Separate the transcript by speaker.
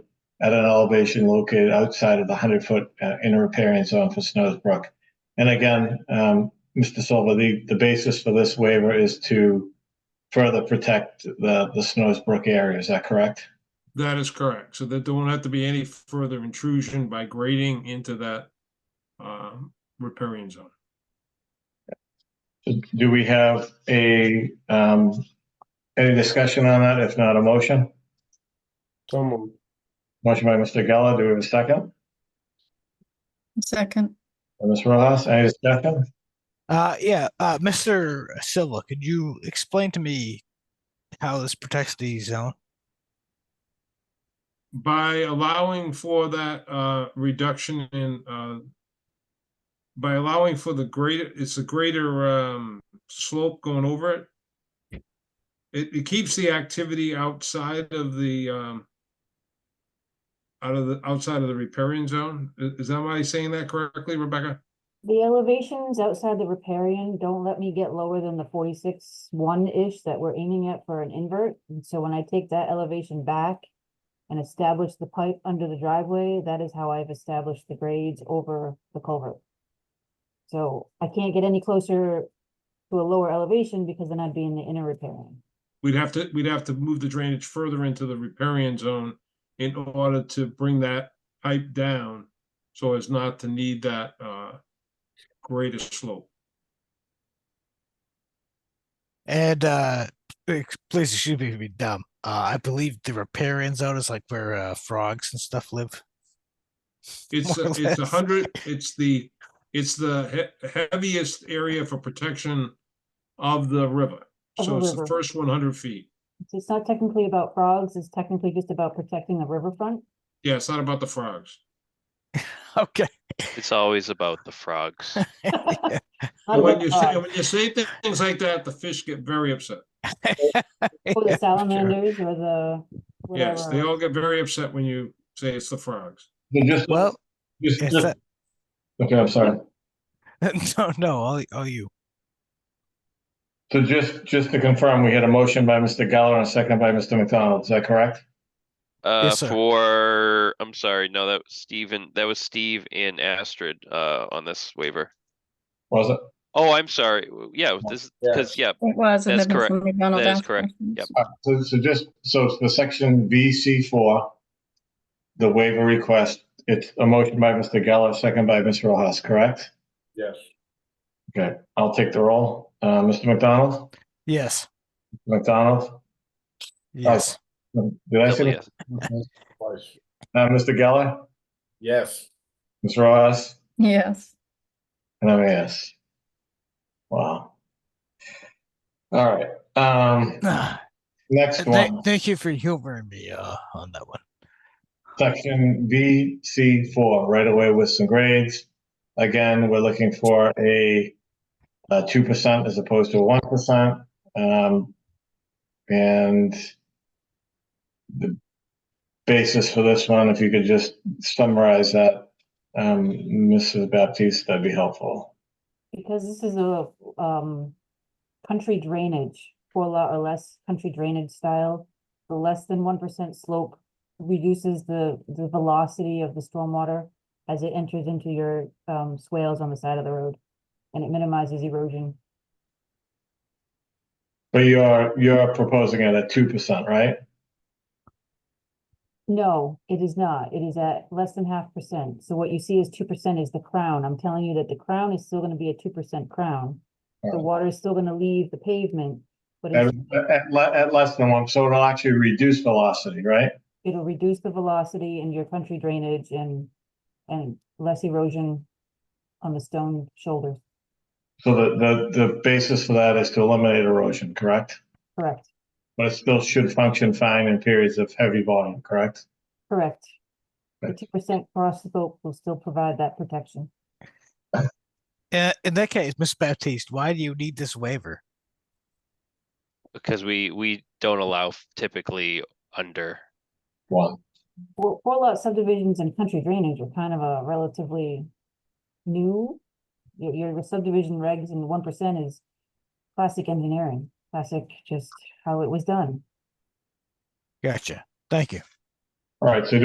Speaker 1: at an elevation located outside of the 100-foot inner riparian zone for Snows Brook. And again, um, Mr. Silva, the, the basis for this waiver is to further protect the, the Snows Brook area. Is that correct?
Speaker 2: That is correct, so that there won't have to be any further intrusion by grading into that um, riparian zone.
Speaker 1: Do we have a, um, any discussion on that? If not, a motion?
Speaker 3: So moved.
Speaker 1: Motion by Mr. Geller. Do we have a second?
Speaker 4: Second,
Speaker 1: And Ms. Rojas, any discussion?
Speaker 5: Uh, yeah, uh, Mr. Silva, could you explain to me how this protects the zone?
Speaker 2: By allowing for that uh, reduction in uh, by allowing for the greater, it's a greater um, slope going over it. It, it keeps the activity outside of the um, out of the, outside of the riparian zone. Is, is that am I saying that correctly, Rebecca?
Speaker 6: The elevations outside the riparian don't let me get lower than the forty-six one-ish that we're aiming at for an invert. And so when I take that elevation back and establish the pipe under the driveway, that is how I've established the grades over the culvert. So I can't get any closer to a lower elevation because then I'd be in the inner riparian.
Speaker 2: We'd have to, we'd have to move the drainage further into the riparian zone in order to bring that pipe down so as not to need that uh greater slope.
Speaker 5: And uh, ex- please excuse me for being dumb. Uh, I believe the riparian zone is like where uh, frogs and stuff live.
Speaker 2: It's,
Speaker 5: More or
Speaker 2: a- it's a
Speaker 5: less.
Speaker 2: hundred, it's the, it's the he- heaviest area for protection of the river.
Speaker 6: Of the
Speaker 2: So it's the
Speaker 6: river.
Speaker 2: first one hundred feet.
Speaker 6: So It's not technically about frogs, it's technically just about protecting the riverfront.
Speaker 2: Yeah, it's not about the frogs.
Speaker 5: Okay.
Speaker 7: It's always about the frogs.
Speaker 6: Not
Speaker 2: When
Speaker 6: about
Speaker 2: you say,
Speaker 6: frogs.
Speaker 2: when you say thi- things like that, the fish get very upset.
Speaker 6: Or the
Speaker 5: Yeah, for sure.
Speaker 6: salamanders or the
Speaker 2: Yes, they
Speaker 6: whatever.
Speaker 2: all get very upset when you say it's the frogs.
Speaker 1: Just-
Speaker 5: Well,
Speaker 1: just-
Speaker 5: is
Speaker 1: just-
Speaker 5: that-
Speaker 1: Okay, I'm sorry.
Speaker 5: no, no, all, all you.
Speaker 1: So just, just to confirm, we had a motion by Mr. Geller and a second by Mr. McDonald. Is that correct?
Speaker 7: Uh,
Speaker 5: sir.
Speaker 7: for, I'm sorry, no, that was Steven, that was Steve and Astrid, uh, on this waiver.
Speaker 1: Was it?
Speaker 7: Oh, I'm sorry. w- Yeah, this, because, yeah,
Speaker 4: it was. and
Speaker 7: That's
Speaker 4: there was
Speaker 7: correct.
Speaker 4: some McDonald
Speaker 7: That is correct.
Speaker 4: afterwards.
Speaker 7: Yep.
Speaker 1: Uh, So, so just, so it's the section VC four, the waiver request, it's a motion by Mr. Geller, second by Ms. Rojas, correct?
Speaker 3: Yes.
Speaker 1: Okay, I'll take the roll. Uh, Mr. McDonald?
Speaker 5: Yes.
Speaker 1: McDonald?
Speaker 5: Yes.
Speaker 1: Did I
Speaker 7: double
Speaker 1: say?
Speaker 7: yes.
Speaker 3: Twice.
Speaker 1: Uh, Mr. Geller?
Speaker 3: Yes.
Speaker 1: Ms. Rojas?
Speaker 4: Yes,
Speaker 1: And I'm a yes. Wow. All right, um,
Speaker 5: Ah,
Speaker 1: next
Speaker 5: th-
Speaker 1: one.
Speaker 5: thank you for humoring me uh, on that one.
Speaker 1: section VC four, right away with some grades. Again, we're looking for a two percent as opposed to a one percent. Um, and the basis for this one, if you could just summarize that, um, Mrs. Baptiste, that'd be helpful.
Speaker 6: Because this is a, um, country drainage, four lot or less country drainage style. The less than one percent slope reduces the, the velocity of the stormwater as it enters into your, um, swales on the side of the road. And it minimizes erosion.
Speaker 1: But you're, you're proposing it at two percent, right?
Speaker 6: No, it is not. It is at less than half percent. So what you see is two percent is the crown. I'm telling you that the crown is still gonna be a two percent crown. The
Speaker 1: Alright.
Speaker 6: water is still gonna leave the pavement, but
Speaker 1: At,
Speaker 6: it's-
Speaker 1: at, le- at less than one, so it'll actually reduce velocity, right?
Speaker 6: it'll reduce the velocity in your country drainage and, and less erosion on the stone shoulders,
Speaker 1: So the, the, the basis for that is to eliminate erosion, correct?
Speaker 6: correct,
Speaker 1: But it still should function fine in periods of heavy volume, correct?
Speaker 6: correct. The
Speaker 1: Right.
Speaker 6: two percent cross slope will still provide that protection.
Speaker 5: Uh, in that case, Miss Baptiste, why do you need this waiver?
Speaker 7: Because we, we don't allow f- typically under.
Speaker 1: One.
Speaker 6: Four, four lot subdivisions and country drainage are kind of a relatively new. Your, your subdivision regs and one percent is classic engineering, classic just how it was done.
Speaker 5: Gotcha. Thank you.
Speaker 1: All right, so